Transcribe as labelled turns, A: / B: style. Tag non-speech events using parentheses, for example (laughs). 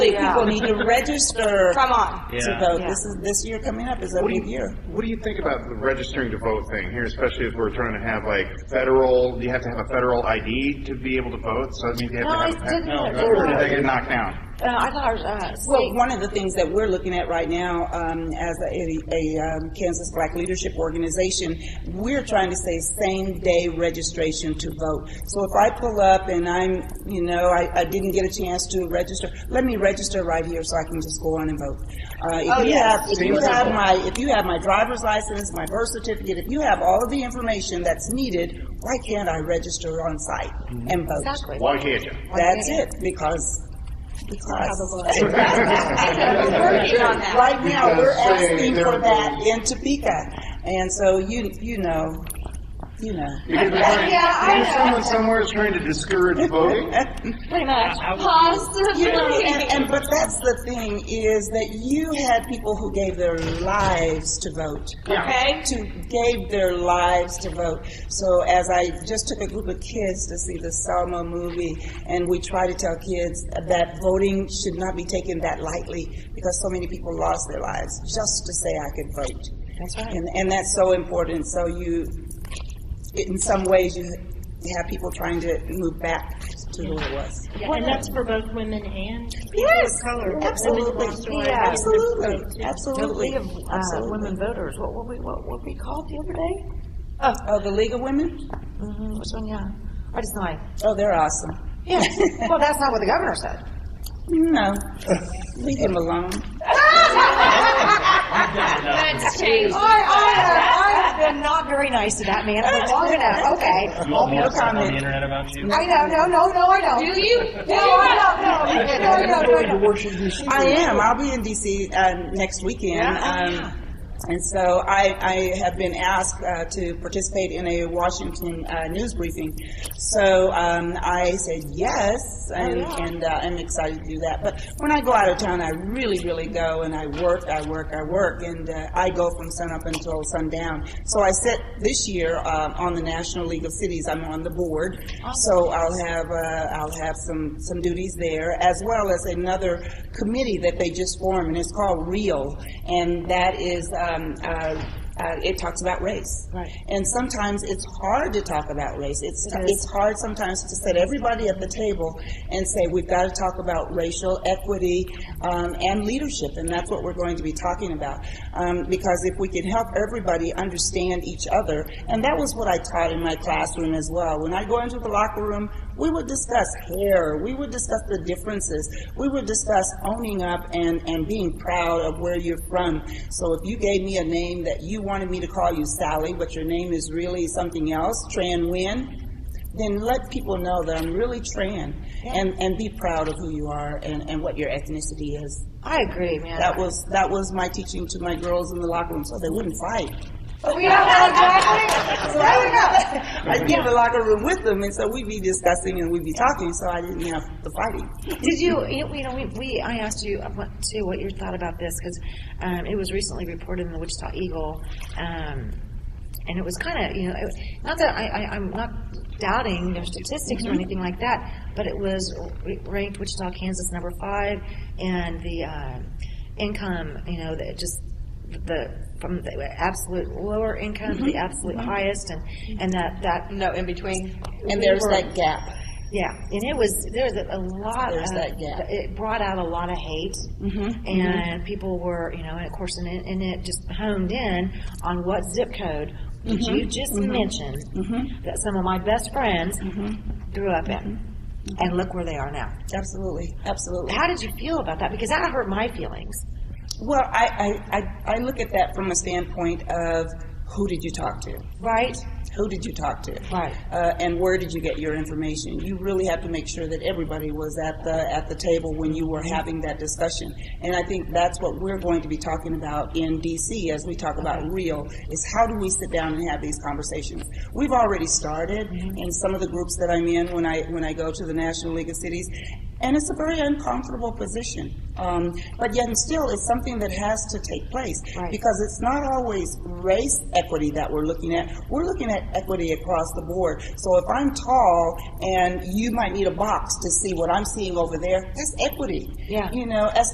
A: people need to
B: (laughs)
A: register
C: Come on.
A: to
D: Yeah.
A: vote.
C: Yeah.
A: This is, this year coming up is a
B: What do
A: big
B: you,
A: year.
B: what do you think about the registering to vote thing here, especially if we're trying to have like federal, you have to have a federal ID to be able to vote, so that means you have
C: No,
B: to have
C: I
B: a. pen-
C: didn't.
B: Or did that get knocked down?
C: Uh, I thought ours, uh,
A: Well,
C: state.
A: one of the things that we're looking at right now, um, as a, a, um, Kansas Black Leadership Organization, we're trying to say same day registration to vote. So if I pull up and I'm, you know, I, I didn't get a chance to register, let me register right here so I can just go on and vote. Uh,
C: Oh,
A: if you have,
C: yeah.
A: if you
B: Seems
A: have
B: simple.
A: my, if you have my driver's license, my birth certificate, if you have all of the information that's needed, why can't I register on site and vote?
C: Exactly.
B: Why can't you?
A: That's it, because, because.
C: (laughs) We're working on that.
A: Right now, we're
B: Because they-
A: asking for
B: they're-
A: that in Topeka, and so you, you know, you know.
B: Because we're trying-
C: (laughs) Yeah, I
B: because
C: know.
B: someone somewhere is trying to discourage voting.
C: Pretty
D: I-
C: much.
D: I would-
A: (laughs)
C: Positively.
A: You know, and, and, but that's the thing, is that you had people who gave their lives to vote.
C: Okay.
A: To, gave their lives to vote. So as I just took a group of kids to see the Selma movie, and we try to tell kids that voting should not be taken that lightly, because so many people lost their lives just to say I could vote.
C: That's right.
A: And, and that's so important, so you, in some ways, you have people trying to move back to who it was.
E: Yeah, and that's for both women and
A: Yes,
E: color.
A: absolutely,
E: Women who lost their
A: yeah,
E: lives.
A: absolutely,
C: The
A: absolutely. Um,
C: League of uh,
A: absolutely.
C: Women Voters, what were we, what were we called the other day?
A: Oh, the League of Women?
C: Mm-hmm, which one, yeah. I just know I.
A: Oh, they're awesome.
C: Yeah. (laughs) Well, that's not what the governor said.
A: No, leave them alone.
E: That's changed.
C: I, I, have- I have been not very nice to that man for long enough, okay.
D: You want
A: no
D: more stuff on
A: comment.
D: the internet about you?
C: I know, no, no, no, I
E: Do
C: don't.
E: you?
C: No, I don't, no, no, no, no, no.
A: I am. I'll be in DC um, next weekend. Um, and so I, I have been asked uh, to participate in a Washington uh, news briefing. So um, I said yes, and, and uh, I'm excited to do that. But when I go out of town, I really, really go and I work, I work, I work, and uh, I go from sunup until sundown. So I sit this year uh, on the National League of Cities. I'm on the board, so I'll have uh, I'll have some some duties there as well as another committee that they just formed, and it's called Real, and that is. Um, uh, uh, it talks about race,
C: Right.
A: and sometimes it's hard to talk about race. It's it's hard sometimes to set everybody at the table and say we've got to talk about racial equity um, and leadership, and that's what we're going to be talking about. Um, because if we can help everybody understand each other, and that was what I taught in my classroom as well. When I go into the locker room, we would discuss hair, we would discuss the differences, we would discuss owning up and, and being proud of where you're from. So if you gave me a name that you wanted me to call you Sally, but your name is really something else, Tran Nguyen, then let people know that I'm really Tran and, and be proud of who you are and, and what your ethnicity is.
C: I agree, man.
A: That was, that was my teaching to my girls in the locker room so they wouldn't fight.
C: We don't know exactly, there we go.
A: I'd be in the locker room with them and so we'd be discussing and we'd be talking, so I didn't have the fighting.
C: Did you, you you know, we, we, I asked you, uh, what, too, what your thought about this, because, um, it was recently reported in the Wichita Eagle, um, and it was kind of, you know, it, not that I, I, I'm not doubting their statistics or anything like that, but it was r- ranked Wichita, Kansas, number five, and the, um, income, you know, that just, the, from the absolute lower income to the absolute highest, and, and that, that,
E: No, in between.
A: And
C: We
A: there's
C: were-
A: that gap.
C: yeah, and it was there was a lot.
A: There's
C: of,
A: that gap. Mm-hmm,
C: It brought out a lot of hate, and people were, you know, and of course, and it, and it just honed in on what zip code did
A: Mm-hmm,
C: you just mention that some of my best friends
A: Mm-hmm.
C: grew up in, and look where they are now.
A: Absolutely, absolutely.
C: How did you feel about that? Because that hurt my feelings.
A: Well, I, I, I, I look at that from a standpoint of who did you talk to?
C: Right?
A: Who did you talk to?
C: Right.
A: Uh, and where did you get your information? You really have to make sure that everybody was at the at the table when you were having that discussion. And I think that's what we're going to be talking about in DC as we talk about real is how do we sit down and have these conversations? We've already started in some of the groups that I'm in when I when I go to the National League of Cities. And it's a very uncomfortable position. Um, but yet and still, it's something that has to take place.
C: Right.
A: Because because it's not always race equity that we're looking at. We're looking at equity across the board. So if I'm tall and you might need a box to see what I'm seeing over there, that's equity.
C: Yeah.
A: You know, as